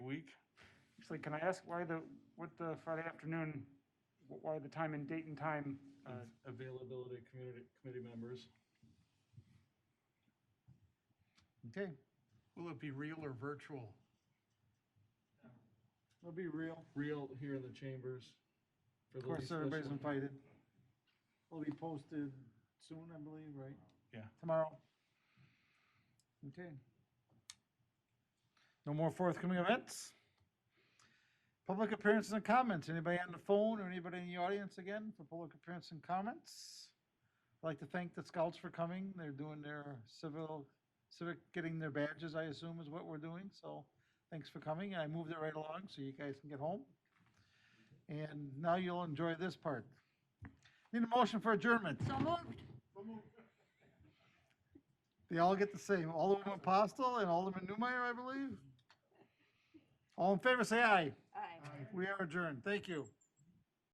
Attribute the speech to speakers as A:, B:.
A: Actually, can I ask why the, what the Friday afternoon, wh- why the time and date and time? uh,
B: Mm-hmm.
C: Availability of community, committee members.
B: Okay. Will it be real or virtual?
A: It'll be real.
C: Real here in the chambers.
A: Of course, everybody's invited.
D: Will be posted soon, I believe, right?
A: Yeah. Tomorrow.
D: Okay.
A: No more forthcoming events? Public appearances and comments. Anybody on the phone or anybody in the audience again for public appearance and comments? I'd like to thank the scouts for coming. They're doing their civil, civic, getting their badges, I assume, is what we're doing. So thanks for coming. I moved it right along so you guys can get home. And now you'll enjoy this part. Need a motion for adjournment.
E: So moved.
A: They all get the same. Alderman Postle and Alderman Newmeyer, I believe. All in favor, say aye.
E: Aye.
A: We are adjourned. Thank you.